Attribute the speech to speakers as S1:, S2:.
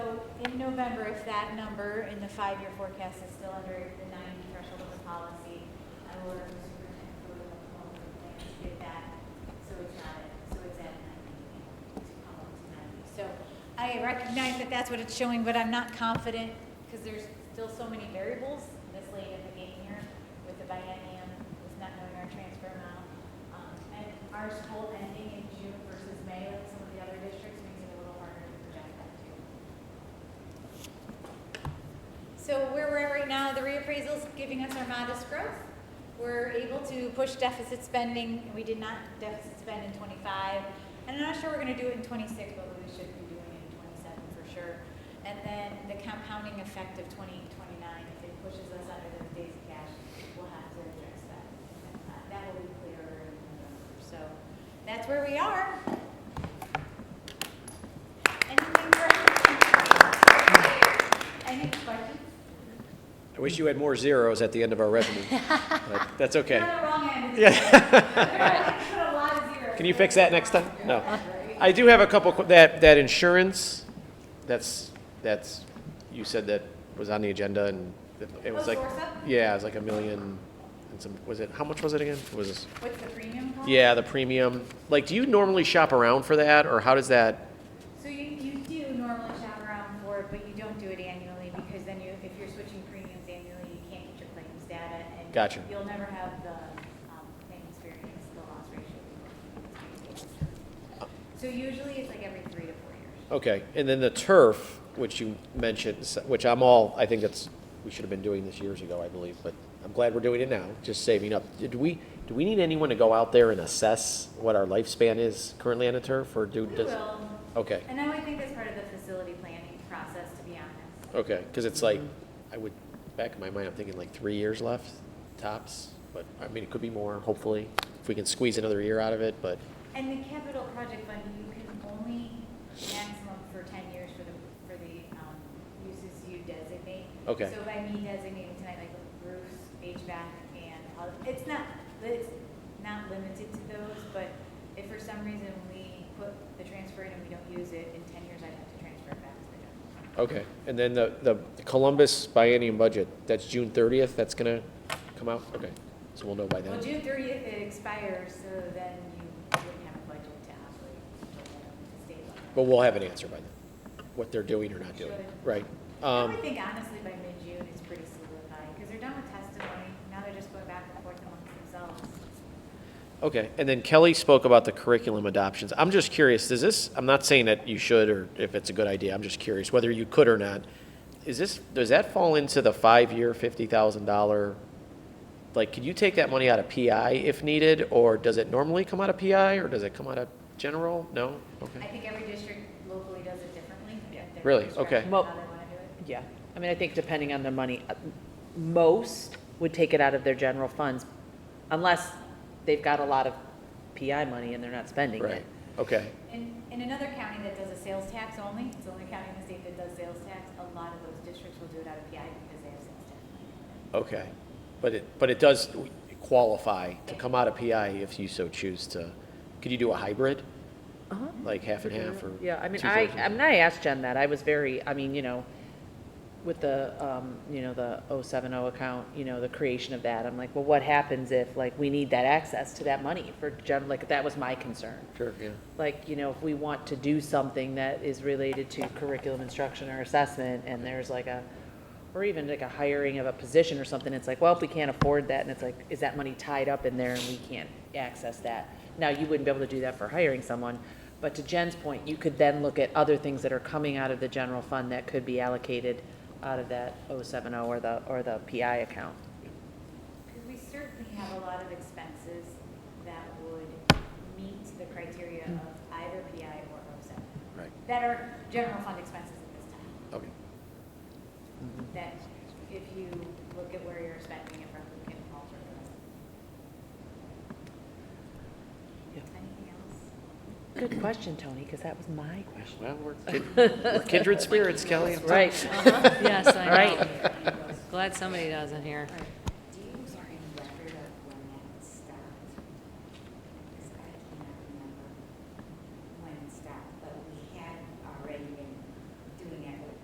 S1: November, if that number in the five-year forecast is still under the ninety threshold of the policy, I will order the superintendent to look up all the things to get that, so it's not, so it's at ninety, to come up to ninety. So I recognize that that's what it's showing, but I'm not confident, because there's still so many variables this late in the game here with the biennium, with not knowing our transfer amount. Um, And our school ending in June versus May, like some of the other districts, makes it a little harder to project that too. So where we're at right now, the reappraisal's giving us our modest growth. We're able to push deficit spending, we did not deficit spend in twenty-five. And I'm not sure we're gonna do it in twenty-six, but we should be doing it in twenty-seven for sure. And then the compounding effect of twenty twenty-nine, if it pushes us under the days of cash, we'll have to address that. Uh, That will be clearer in November, so that's where we are. Anything for? Any questions?
S2: I wish you had more zeros at the end of our revenue. but That's
S1: You're
S2: okay.
S1: on the wrong end.
S2: Yeah.
S1: Put a lot of zeros.
S2: Can you fix that next time? No. I do have a couple, qu- that, that insurance, that's, that's, you said that was on the agenda and it- it was
S1: Oh,
S2: like,
S1: Zorsa?
S2: yeah, it was like a million and some, was it, how much was it again? Was this,
S1: What's the premium cost?
S2: yeah, the premium. Like, do you normally shop around for that or how does that,
S1: So you, you do normally shop around for it, but you don't do it annually because then you, if you're switching premiums annually, you can't get your claims data and.
S2: Gotcha.
S1: You'll never have the, um, claim experience, the loss ratio. So usually it's like every three to four years.
S2: okay. And then the turf, which you mentioned, s- which I'm all, I think that's, we should have been doing this years ago, I believe, but I'm glad we're doing it now, just saving up. Do we, do we need anyone to go out there and assess what our lifespan is currently on a turf or do?
S1: We
S2: does-
S1: will,
S2: Okay.
S1: and I would think that's part of the facility planning process, to be honest.
S2: Okay, because it's like, I would, back in my mind, I'm thinking like three years left, tops, but, I mean, it could be more, hopefully, if we can squeeze another year out of it, but,
S1: And the capital project fund, you can only maximum for ten years for the, for the, um, uses you designate.
S2: Okay.
S1: So by me designating tonight, like roofs, HVAC, and all, it's not, it's not limited to those, but if for some reason we put the transfer in and we don't use it, in ten years I'd have to transfer it back to the general. fund.
S2: okay. And then the, the Columbus biennium budget, that's June thirtieth, that's gonna come out? Okay, so we'll know by
S1: Well,
S2: then.
S1: June thirtieth it expires, so then you wouldn't have a budget to operate until then, the state level.
S2: But we'll have an answer by then, what they're doing or not doing,
S1: Should.
S2: right?
S1: I
S2: Um,
S1: would think honestly by mid-June, it's pretty solidified, because they're done with testimony, now they're just going back and forth amongst themselves.
S2: Okay, and then Kelly spoke about the curriculum adoptions. I'm just curious, does this, I'm not saying that you should or if it's a good idea, I'm just curious whether you could or not. Is this, does that fall into the five-year, fifty thousand dollar? Like, could you take that money out of PI if needed, or does it normally come out of PI, or does it come out of general? No?
S1: I
S2: Okay.
S1: think every district locally does it differently. at their
S2: Really?
S1: discretion,
S2: Okay.
S1: How
S3: Well-
S1: they want to do it.
S3: Yeah, I mean, I think depending on their money, uh, most would take it out of their general funds, unless they've got a lot of PI money and they're not spending
S2: Right,
S3: it.
S2: okay,
S1: In, in another county that does a sales tax only, it's the only county in the state that does sales tax, a lot of those districts will do it out of PI because they have sales tax.
S2: okay. But it, but it does qualify to come out of PI if you so choose to. Could you do a hybrid,
S3: Uh-huh.
S2: like half and half or?
S3: Yeah, I mean, I,
S2: two-thirds?
S3: I mean, I asked Jen that, I was very, I mean, you know, with the, um, you know, the 070 account, you know, the creation of that, I'm like, well, what happens if, like, we need that access to that money for gen, like, that was my concern.
S2: Sure, yeah.
S3: like, you know, if we want to do something that is related to curriculum instruction or assessment, and there's like a, or even like a hiring of a position or something, it's like, well, if we can't afford that, and it's like, is that money tied up in there and we can't access that? Now, you wouldn't be able to do that for hiring someone, but to Jen's point, you could then look at other things that are coming out of the general fund that could be allocated out of that 070 or the, or the PI account.
S1: Because we certainly have a lot of expenses that would meet the criteria of either PI or OSEP,
S2: Right,
S1: that are general fund expenses at this time.
S2: okay.
S1: that if you look at where you're spending it from, you can alter it.
S3: Yeah.
S1: Anything else?
S3: Good question, Tony, because that was my question.
S2: Well, we're kin- we're kindred spirits, Kelly.
S3: Right,
S4: Yes, I know.
S3: right.
S4: Glad somebody doesn't here.